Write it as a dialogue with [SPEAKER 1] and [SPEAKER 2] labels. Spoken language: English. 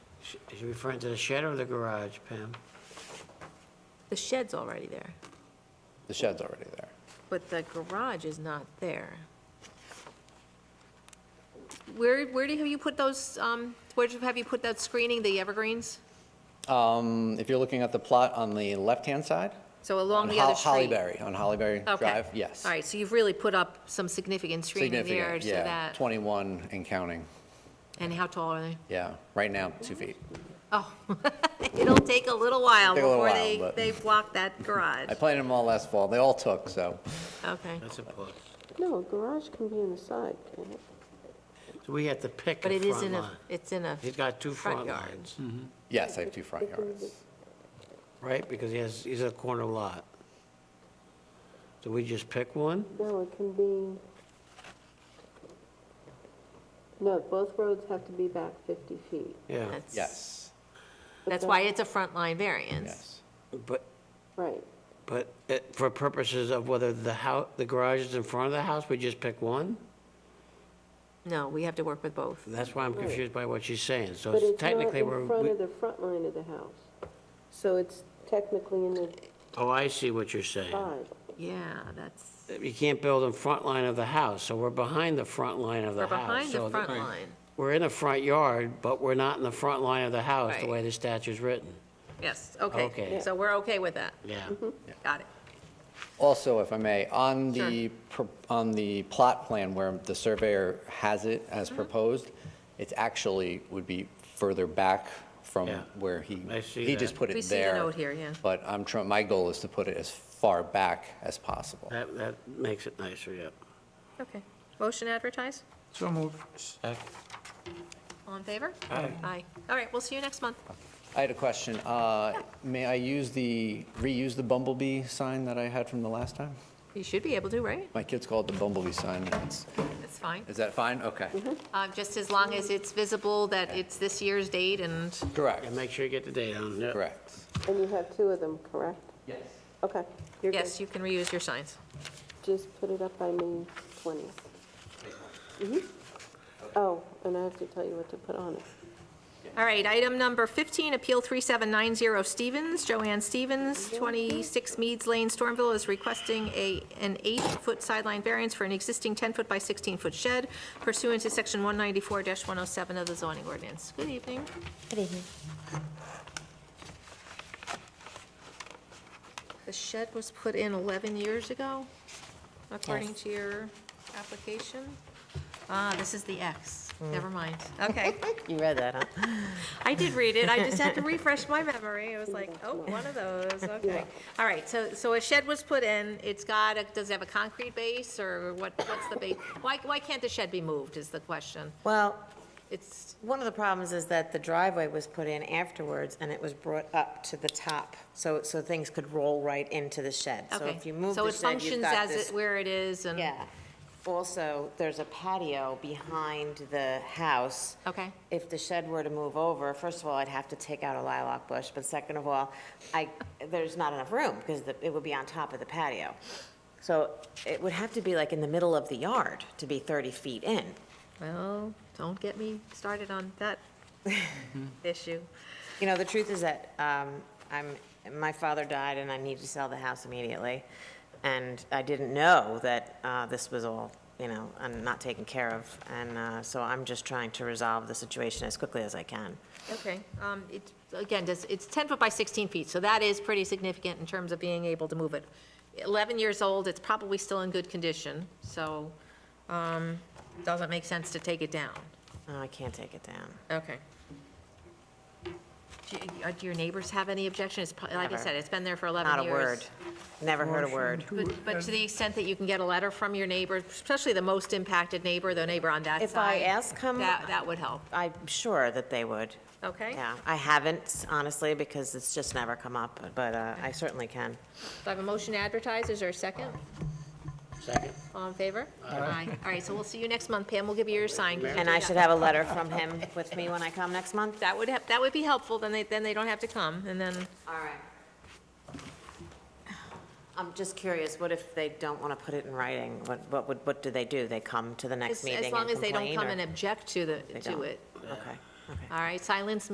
[SPEAKER 1] Sh- Is you referring to the shed or the garage, Pam?
[SPEAKER 2] The shed's already there,
[SPEAKER 3] The shed's already there.
[SPEAKER 2] but the garage is not there. Where, where do, have you put those, um, where do- have you put that screening, the evergreens?
[SPEAKER 3] Um, If you're looking at the plot on the left-hand side?
[SPEAKER 2] So
[SPEAKER 3] on
[SPEAKER 2] along the
[SPEAKER 3] Hol-
[SPEAKER 2] other street?
[SPEAKER 3] Uh, Hollyberry, on Hollyberry
[SPEAKER 2] Okay.
[SPEAKER 3] Drive, yes.
[SPEAKER 2] All right, so you've really put up some significant screening there,
[SPEAKER 3] Significant,
[SPEAKER 2] so
[SPEAKER 3] yeah,
[SPEAKER 2] that,
[SPEAKER 3] 21 and counting,
[SPEAKER 2] and how tall are they?
[SPEAKER 3] yeah. Right now, two feet.
[SPEAKER 2] Oh, it'll take a little while
[SPEAKER 3] Take a little
[SPEAKER 2] before
[SPEAKER 3] while,
[SPEAKER 2] they,
[SPEAKER 3] but-
[SPEAKER 2] they block that garage.
[SPEAKER 3] I planted them all last fall, they all took, so.
[SPEAKER 2] Okay,
[SPEAKER 1] That's a plus.
[SPEAKER 4] No, a garage can be in the side, can't it?
[SPEAKER 1] So we have to pick
[SPEAKER 2] but
[SPEAKER 1] a
[SPEAKER 2] it is
[SPEAKER 1] front
[SPEAKER 2] in
[SPEAKER 1] line.
[SPEAKER 2] a, it's in a,
[SPEAKER 1] He's got two
[SPEAKER 2] Front
[SPEAKER 1] front
[SPEAKER 2] yard.
[SPEAKER 1] lines,
[SPEAKER 3] Yes, I have two front yards.
[SPEAKER 1] right? Because he has, he's a corner lot. So we just pick one?
[SPEAKER 4] No, it can be... No, both roads have to be back 50 feet.
[SPEAKER 1] Yeah,
[SPEAKER 2] that's.
[SPEAKER 3] Yes,
[SPEAKER 2] That's why it's a front line variance.
[SPEAKER 3] yes.
[SPEAKER 1] but,
[SPEAKER 4] Right.
[SPEAKER 1] but it- for purposes of whether the house, the garage is in front of the house, we just pick one?
[SPEAKER 2] No, we have to work with both.
[SPEAKER 1] That's why I'm confused by what she's saying. So
[SPEAKER 4] But it's not
[SPEAKER 1] technically, we're,
[SPEAKER 4] in front
[SPEAKER 1] we-
[SPEAKER 4] of the front line of the house. So it's technically in the
[SPEAKER 1] oh, I see what you're saying.
[SPEAKER 4] side.
[SPEAKER 2] Yeah, that's,
[SPEAKER 1] You can't build in front line of the house, so we're behind the front line of the
[SPEAKER 2] we're
[SPEAKER 1] house.
[SPEAKER 2] behind
[SPEAKER 1] So
[SPEAKER 2] the
[SPEAKER 1] th-
[SPEAKER 2] front line.
[SPEAKER 1] We're in the front yard, but we're not in the front line of the house, the
[SPEAKER 2] Right.
[SPEAKER 1] way the statute's written.
[SPEAKER 2] Yes,
[SPEAKER 1] Okay.
[SPEAKER 2] okay. So we're okay with that.
[SPEAKER 1] Yeah.
[SPEAKER 2] Got it.
[SPEAKER 3] Also, if I may, on the, pro- on the plot plan where the surveyor has it as
[SPEAKER 2] Mm-hmm.
[SPEAKER 3] proposed, it's actually, would be further back from
[SPEAKER 1] Yeah.
[SPEAKER 3] where he,
[SPEAKER 1] I see
[SPEAKER 3] he just
[SPEAKER 1] that.
[SPEAKER 3] put it there.
[SPEAKER 2] We see the note here, yeah.
[SPEAKER 3] But I'm trying, my goal is to put it as far back as possible.
[SPEAKER 1] That, that makes it nicer, yep.
[SPEAKER 2] Okay. Motion advertise?
[SPEAKER 5] So moved.
[SPEAKER 2] All in favor? Aye. Aye. All right, we'll see you next month.
[SPEAKER 3] I had a question. Uh, May I use the, reuse the bumblebee sign that I had from the last time?
[SPEAKER 2] You should be able to, right?
[SPEAKER 3] My kids call it the bumblebee sign. It's-
[SPEAKER 2] That's fine.
[SPEAKER 3] Is that fine? Okay.
[SPEAKER 2] Uh, Just as long as it's visible that it's this year's date and
[SPEAKER 3] Correct,
[SPEAKER 1] And make sure you get the date on, yep.
[SPEAKER 3] correct.
[SPEAKER 4] And you have two of them, correct? Yes. Okay. You're good.
[SPEAKER 2] yes, you can reuse your signs.
[SPEAKER 4] Just put it up by May 20th. Mhm. Oh, and I have to tell you what to put on it.
[SPEAKER 2] All right, item number 15, Appeal 3790 Stevens. Joanne Stevens, 26 Meads Lane, Stormville, is requesting a, an eight-foot sideline variance for an existing 10-foot by 16-foot shed pursuant to Section 194-107 of the zoning ordinance. Good evening.
[SPEAKER 6] Good evening.
[SPEAKER 2] The shed was put in 11 years ago, according to your application. Ah, this is the X. Never mind. Okay.
[SPEAKER 6] You read that, huh?
[SPEAKER 2] I did read it, I just had to refresh my memory, it was like, oh, one of those, okay. All right, so, so a shed was put in, it's got, a- does it have a concrete base, or what, what's the base? Why, why can't the shed be moved, is the question?
[SPEAKER 6] Well,
[SPEAKER 2] It's,
[SPEAKER 6] one of the problems is that the driveway was put in afterwards, and it was brought up to the top, so, so things could roll right into the shed. So
[SPEAKER 2] okay.
[SPEAKER 6] if you move
[SPEAKER 2] So
[SPEAKER 6] the
[SPEAKER 2] it
[SPEAKER 6] shed, you've
[SPEAKER 2] functions
[SPEAKER 6] got
[SPEAKER 2] as
[SPEAKER 6] this.
[SPEAKER 2] it, where it is, and,
[SPEAKER 6] Yeah. Also, there's a patio behind the house.
[SPEAKER 2] okay,
[SPEAKER 6] If the shed were to move over, first of all, I'd have to take out a lilac bush, but second of all, I, there's not enough room, because the- it would be on top of the patio. So it would have to be like in the middle of the yard to be 30 feet in.
[SPEAKER 2] well, don't get me started on that issue.
[SPEAKER 6] You know, the truth is that um, I'm, my father died, and I needed to sell the house immediately, and I didn't know that uh, this was all, you know, and not taken care of, and uh, so I'm just trying to resolve the situation as quickly as I can.
[SPEAKER 2] Okay, um, it, again, does, it's 10 foot by 16 feet, so that is pretty significant in terms of being able to move it. 11 years old, it's probably still in good condition, so, um, doesn't make sense to take it down.
[SPEAKER 6] Oh, I can't take it down.
[SPEAKER 2] Okay. Do, you- uh, do your neighbors have any objection? It's, pro- like I
[SPEAKER 6] Never.
[SPEAKER 2] said, it's been there for 11
[SPEAKER 6] Not
[SPEAKER 2] years.
[SPEAKER 6] a word. Never heard a word.
[SPEAKER 2] But, but to the extent that you can get a letter from your neighbor, especially the most impacted neighbor, the neighbor on that side.
[SPEAKER 6] If I ask him-
[SPEAKER 2] That, that would help,
[SPEAKER 6] I'm sure that they would.
[SPEAKER 2] okay?
[SPEAKER 6] Yeah, I haven't, honestly, because it's just never come up, but uh, I certainly can.
[SPEAKER 2] Do I have a motion to advertise? Is there a second?
[SPEAKER 1] Second?
[SPEAKER 2] All in favor? Aye. All right, so we'll see you next month. Pam will give you your sign. 'cause you
[SPEAKER 6] And I
[SPEAKER 2] did
[SPEAKER 6] should
[SPEAKER 2] not-
[SPEAKER 6] have a letter from him with me when I come next month?
[SPEAKER 2] That would have, that would be helpful, then they, then they don't have to come, and then,
[SPEAKER 6] All right. I'm just curious, what if they don't want to put it in writing? What, what would, what do they do? They come to the
[SPEAKER 2] as
[SPEAKER 6] next meeting
[SPEAKER 2] as
[SPEAKER 6] and
[SPEAKER 2] long
[SPEAKER 6] complain?
[SPEAKER 2] as they don't come and
[SPEAKER 6] or-
[SPEAKER 2] object to the,
[SPEAKER 6] They
[SPEAKER 2] to
[SPEAKER 6] don't.
[SPEAKER 2] it.
[SPEAKER 6] Okay, okay.
[SPEAKER 2] All right, silence